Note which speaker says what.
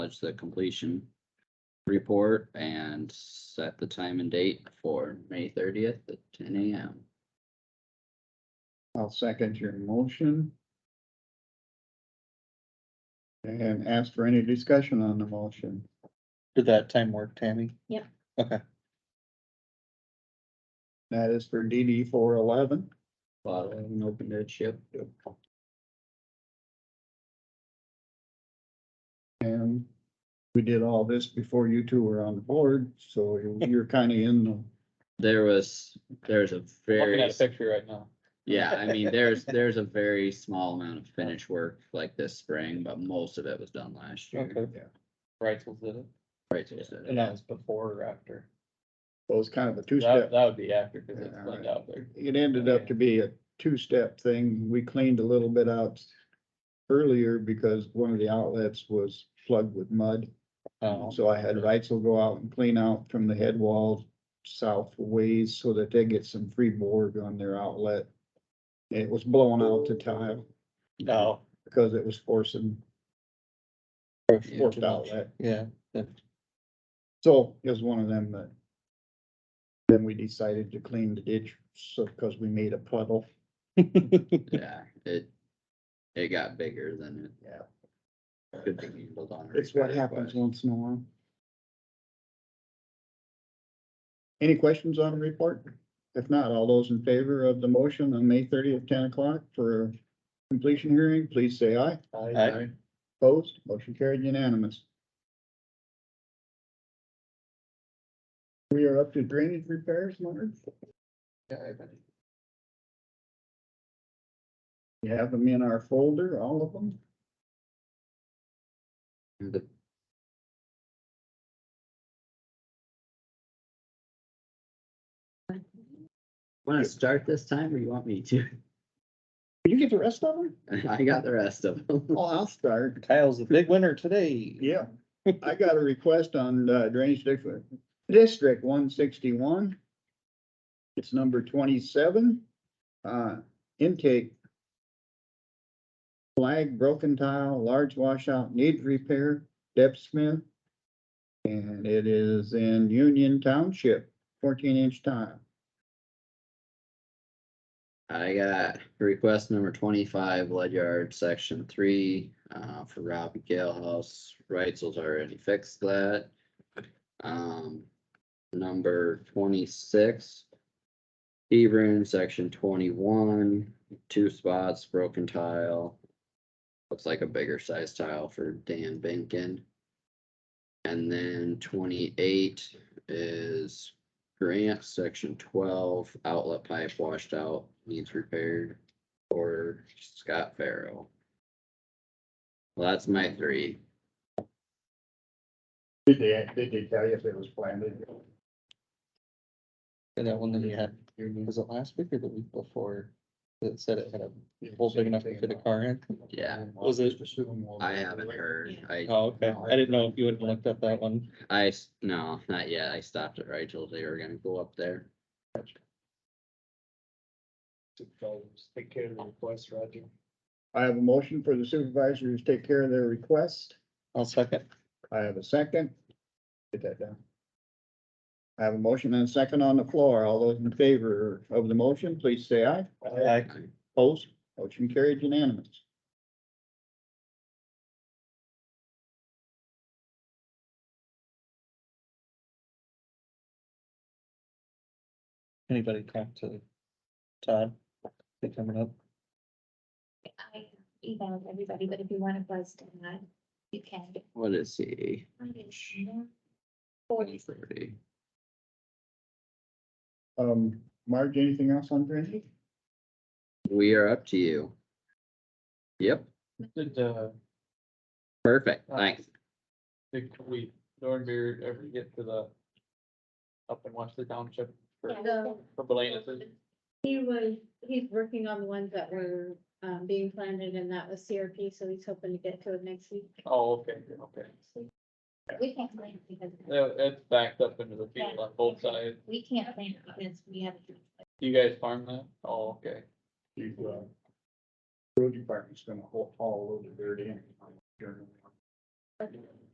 Speaker 1: acknowledge the completion report and set the time and date for May thirtieth at ten AM.
Speaker 2: I'll second your motion. And ask for any discussion on the motion.
Speaker 3: Did that time work, Tammy?
Speaker 2: That is for DD four eleven.
Speaker 1: Bottle and open dead ship.
Speaker 2: And we did all this before you two were on the board, so you're kind of in the,
Speaker 1: There was, there's a
Speaker 3: Looking
Speaker 1: very,
Speaker 3: at a picture right now.
Speaker 1: yeah, I mean, there's, there's a very small amount of finish work like this spring, but most of it was done last year.
Speaker 3: Okay.
Speaker 2: Yeah.
Speaker 3: Reitzel did it.
Speaker 1: Right, so it's-
Speaker 3: And that was before or after?
Speaker 2: well, it's kind of a
Speaker 3: That,
Speaker 2: two-step.
Speaker 3: that would be after, cause it's
Speaker 2: Yeah, alright.
Speaker 3: cleaned out there.
Speaker 2: It ended up to be a two-step thing. We cleaned a little bit out earlier because one of the outlets was plugged with mud.
Speaker 3: Oh,
Speaker 2: So I had Reitzel go out and clean out from the head wall south ways so that they get some free borg on their outlet. It was blowing out the tile
Speaker 3: no,
Speaker 2: because it was forcing
Speaker 1: Yeah.
Speaker 2: forced outlet.
Speaker 3: yeah,
Speaker 2: So it was one of them that. Then we decided to clean the ditch, so, because we made a puddle.
Speaker 1: Yeah, it, it got bigger than it.
Speaker 2: Yeah.
Speaker 1: Could be handled on. a
Speaker 2: It's what
Speaker 1: repair
Speaker 2: happens
Speaker 1: request.
Speaker 2: once in a while. Any questions on the report? If not, all those in favor of the motion on May thirtieth, ten o'clock for completion hearing, please say aye.
Speaker 3: Aye.
Speaker 2: Opposed, motion carried unanimous. We are up to drainage repairs, Leonard. You have them in our folder, all of them?
Speaker 1: The- Wanna start this time or you want me to?
Speaker 2: You get the rest of them?
Speaker 1: I got the rest of them.
Speaker 2: Well, Oh, I'll start.
Speaker 3: Kyle's the big winner today.
Speaker 2: Yeah, I got a request on uh, Drainage District, District one sixty-one. It's number twenty-seven, uh, intake. Flag, broken tile, large washout, needs repair, Deb Smith. And it is in Union Township, fourteen-inch tile.
Speaker 1: I got request number twenty-five, lead yard, section three, uh, for Robbie Galehouse. Reitzel's already fixed that. Um, number twenty-six. Hebron, section twenty-one, two spots, broken tile. Looks like a bigger size tile for Dan Benkin. And then twenty-eight is Grant, section twelve, outlet pipe washed out, needs repaired, or Scott Farrell. Well, that's my three.
Speaker 2: Did they, did they tell you if it was planted?
Speaker 3: And that one that you had, was it last week or the week before? That said it had a hole big enough to fit a car in?
Speaker 1: Yeah,
Speaker 3: Was it-
Speaker 1: I haven't heard. I,
Speaker 3: Oh, okay. I didn't know if you had looked up that one.
Speaker 1: I, s- no, not yet. I stopped at Rachel's. They were gonna go up there.
Speaker 4: Take care of the request, Roger.
Speaker 2: I have a motion for the supervisors to take care of their request.
Speaker 3: I'll second.
Speaker 2: I have a second. Get that down. I have a motion and a second on the floor. All those in favor of the motion, please say aye.
Speaker 3: Aye.
Speaker 2: Opposed, motion carried unanimous.
Speaker 3: Anybody talk to Todd? They coming up?
Speaker 5: I emailed everybody, but if you want to buzz down, you can.
Speaker 1: What is he?
Speaker 5: Forty,
Speaker 1: Thirty.
Speaker 2: Um, Marge, anything else on drainage?
Speaker 1: We are up to you. Yep,
Speaker 4: Did, uh,
Speaker 1: perfect. Thanks.
Speaker 4: did we, Dornbeer ever get to the up and watch the township for,
Speaker 6: So
Speaker 4: for Belanis?
Speaker 6: he was, he's working on the ones that were um being planted and that was CRP, so he's hoping to get to it next week.
Speaker 4: Oh, okay, okay.
Speaker 5: we can't plan it because
Speaker 4: Yeah, it's backed up into the field on both sides.
Speaker 5: we can't plan it because we have.
Speaker 4: You guys farm that? Oh, okay.
Speaker 2: The, uh, Road department's gonna haul, haul a load of dirt in.